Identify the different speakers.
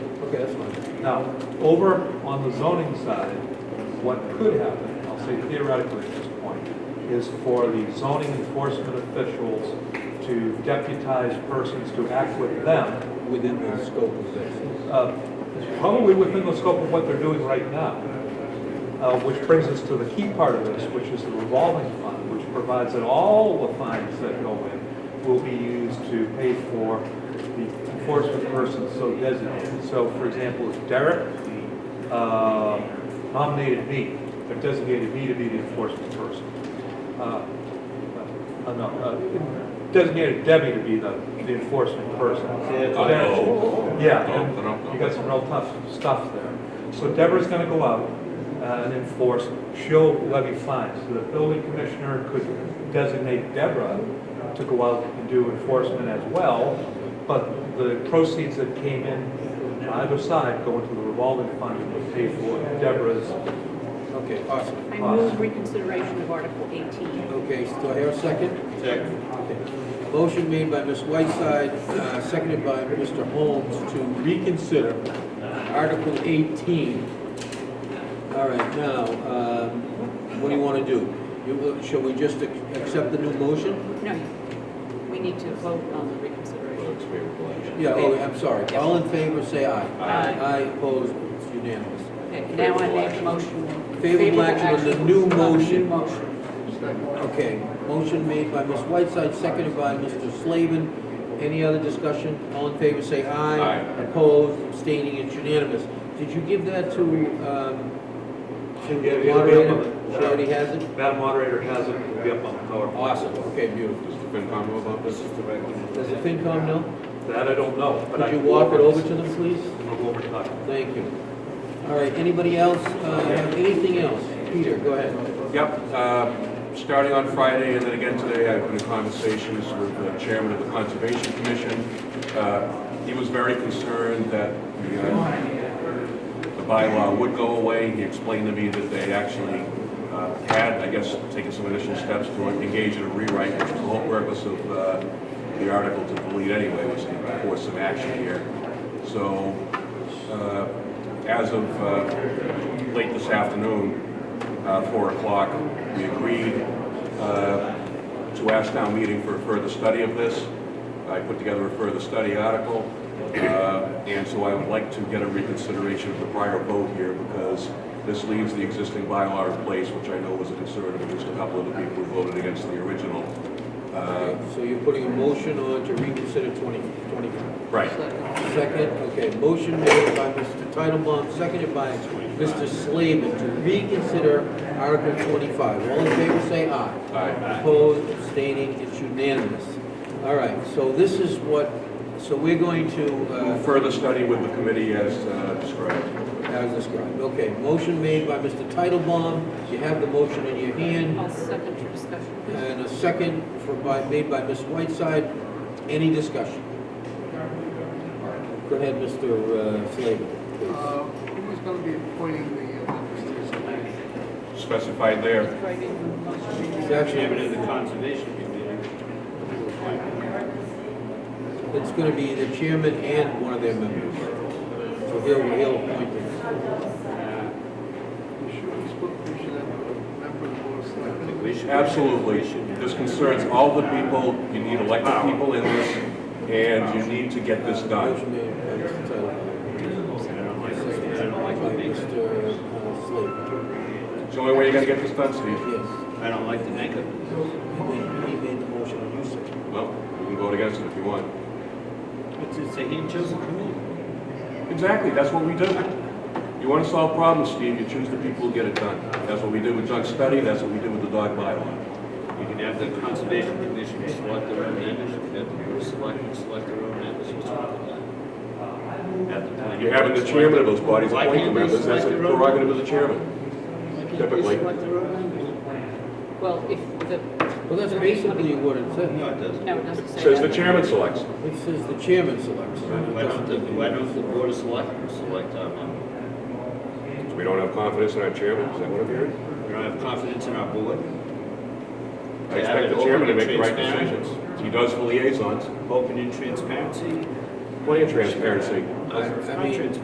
Speaker 1: Okay, that's fine. Now, over on the zoning side, what could happen, I'll say theoretically at this point, is for the zoning enforcement officials to deputize persons to act with them,
Speaker 2: within the scope of this.
Speaker 1: uh, probably within the scope of what they're doing right now. Uh, Which brings us to the key part of this, which is the revolving fund, which provides that all the fines that go in will be used to pay for the enforcement person so designated. So for example, if Derek uh, nominated me, or designated me to be the enforcement person. uh, uh, no, uh, Designated Debbie to be the the enforcement person.
Speaker 3: know.
Speaker 1: Yeah,
Speaker 3: No,
Speaker 1: and
Speaker 3: no, no.
Speaker 1: you got some real tough stuff there. So Deborah's gonna go out uh, and enforce, she'll levy fines. So the building commissioner could designate Deborah to go out and do enforcement as well, but the proceeds that came in on either side go into the revolving fund and pay for Deborah's.
Speaker 2: Okay, awesome.
Speaker 4: I move reconsideration of Article 18.
Speaker 2: Okay, so do I hear a second? Okay. Motion made by Ms. Whiteside, uh, seconded by Mr. Holmes to reconsider Article 18. All right, now, um, what do you want to do? You will- Shall we just ac- accept the new motion?
Speaker 4: No, we need to vote on the reconsideration.
Speaker 2: Yeah, oh, I'm sorry. All in favor, say aye.
Speaker 4: Aye.
Speaker 2: Aye, opposed, it's unanimous.
Speaker 4: Okay, Now I make a motion.
Speaker 2: Favorable action on the new
Speaker 4: on the
Speaker 2: motion.
Speaker 4: motion.
Speaker 2: Okay, motion made by Ms. Whiteside, seconded by Mr. Slavin. Any other discussion? All in favor, say aye.
Speaker 3: Aye.
Speaker 2: Opposed, abstaining, it's unanimous. Did you give that to, um, to
Speaker 1: Yeah,
Speaker 2: the
Speaker 1: it'll be up on
Speaker 2: moderator?
Speaker 1: the-
Speaker 2: She already has it?
Speaker 1: Madam Moderator has it, it'll be up on the PowerPoint.
Speaker 2: Awesome, okay, beautiful.
Speaker 3: Does the FinCom know about this? Is the regular.
Speaker 2: Does the FinCom know?
Speaker 1: That I don't know, but I.
Speaker 2: Could you
Speaker 1: can
Speaker 2: walk it
Speaker 1: go
Speaker 2: over to them, please?
Speaker 1: I'll go over to that.
Speaker 2: Thank you. All right, anybody else, uh, have anything else? Peter, go ahead.
Speaker 3: Yep, um, starting on Friday and then again today, I've been in conversations with the chairman of the Conservation Commission. Uh, He was very concerned that the uh, the bylaw would go away. He explained to me that they actually uh, had, I guess, taken some initial steps to engage in a rewrite, which was the whole purpose of uh, the article to delete anyway, was to force some action here. So uh, as of uh, late this afternoon, uh, 4 o'clock. We agreed uh, to ask town meeting for a further study of this. I put together a further study article, uh, and so I would like to get a reconsideration of the prior vote here because this leaves the existing bylaw in place, which I know was a concern of at least a couple of the people who voted against the original. Uh,
Speaker 2: So you're putting a motion on to reconsider 20, 25.
Speaker 3: Right.
Speaker 2: Second, okay, motion made by Mr. Titlebaum, seconded by Mr. Slavin to reconsider Article 25. All in favor, say aye.
Speaker 3: Aye.
Speaker 2: Opposed, abstaining, it's unanimous. All right, so this is what, so we're going to, uh,
Speaker 3: Further study with the committee as uh, described.
Speaker 2: as described, okay, motion made by Mr. Titlebaum, you have the motion in your hand,
Speaker 4: I'll second your discussion.
Speaker 2: and a second for, by, made by Ms. Whiteside. Any discussion? Go ahead, Mr. uh, Slavin, please.
Speaker 5: Uh, Who's going to be appointing the uh, members to this committee?
Speaker 3: Specified there.
Speaker 4: Right in the motion.
Speaker 2: It's actually-
Speaker 6: Chairman of the Conservation Committee.
Speaker 2: It's gonna be the chairman and one of their members. So he'll, he'll appoint them.
Speaker 5: We should, we should- we should have a member of the board of
Speaker 6: I
Speaker 5: selectmen.
Speaker 6: think we should-
Speaker 3: Absolutely.
Speaker 6: we should-
Speaker 3: This concerns all the people, you need elected people in this, and you need to get this done.
Speaker 2: Motion made by Mr. Tyler.
Speaker 6: I don't like this. I
Speaker 2: Second
Speaker 6: don't
Speaker 2: by
Speaker 6: like the makeup.
Speaker 2: Mr. Slade.
Speaker 3: It's the only way you're gonna get this done, Steve.
Speaker 2: Yes.
Speaker 6: I don't like the makeup.
Speaker 2: He made- He made the motion and you said.
Speaker 3: Well, you can vote against it if you want.
Speaker 6: It's, it's a he chose committee.
Speaker 3: Exactly, that's what we do. You wanna solve problems, Steve, you choose the people who get it done. That's what we did with junk study, that's what we did with the dog bylaw.
Speaker 6: You can have the Conservation Commission select their own members, you can have the Board of Selectmen select their own members. What's wrong with that? Have the planning
Speaker 3: You're having the
Speaker 6: board
Speaker 3: chairman of those
Speaker 6: select-
Speaker 3: bodies
Speaker 6: Why
Speaker 3: appoint the
Speaker 6: can't they
Speaker 3: members, that's
Speaker 6: select
Speaker 3: a
Speaker 6: their own-
Speaker 3: prerogative of the chairman.
Speaker 6: Why can't they
Speaker 3: typically.
Speaker 6: select their own members?
Speaker 4: Well, if the,
Speaker 2: Well, that's basically what it
Speaker 6: No,
Speaker 2: said.
Speaker 6: it doesn't.
Speaker 4: no, it doesn't say that.
Speaker 3: Says the chairman selects.
Speaker 2: It says the chairman selects.
Speaker 6: Why don't the, why don't the Board of Selectmen select our members?
Speaker 3: We don't have confidence in our chairman, is that what I'm hearing?
Speaker 6: We don't have confidence in our board?
Speaker 3: I expect the chairman to make the right decisions. He does for liaisons,
Speaker 6: Open and transparency?
Speaker 3: plenty of
Speaker 2: I
Speaker 3: transparency.
Speaker 2: mean-
Speaker 6: Transparency.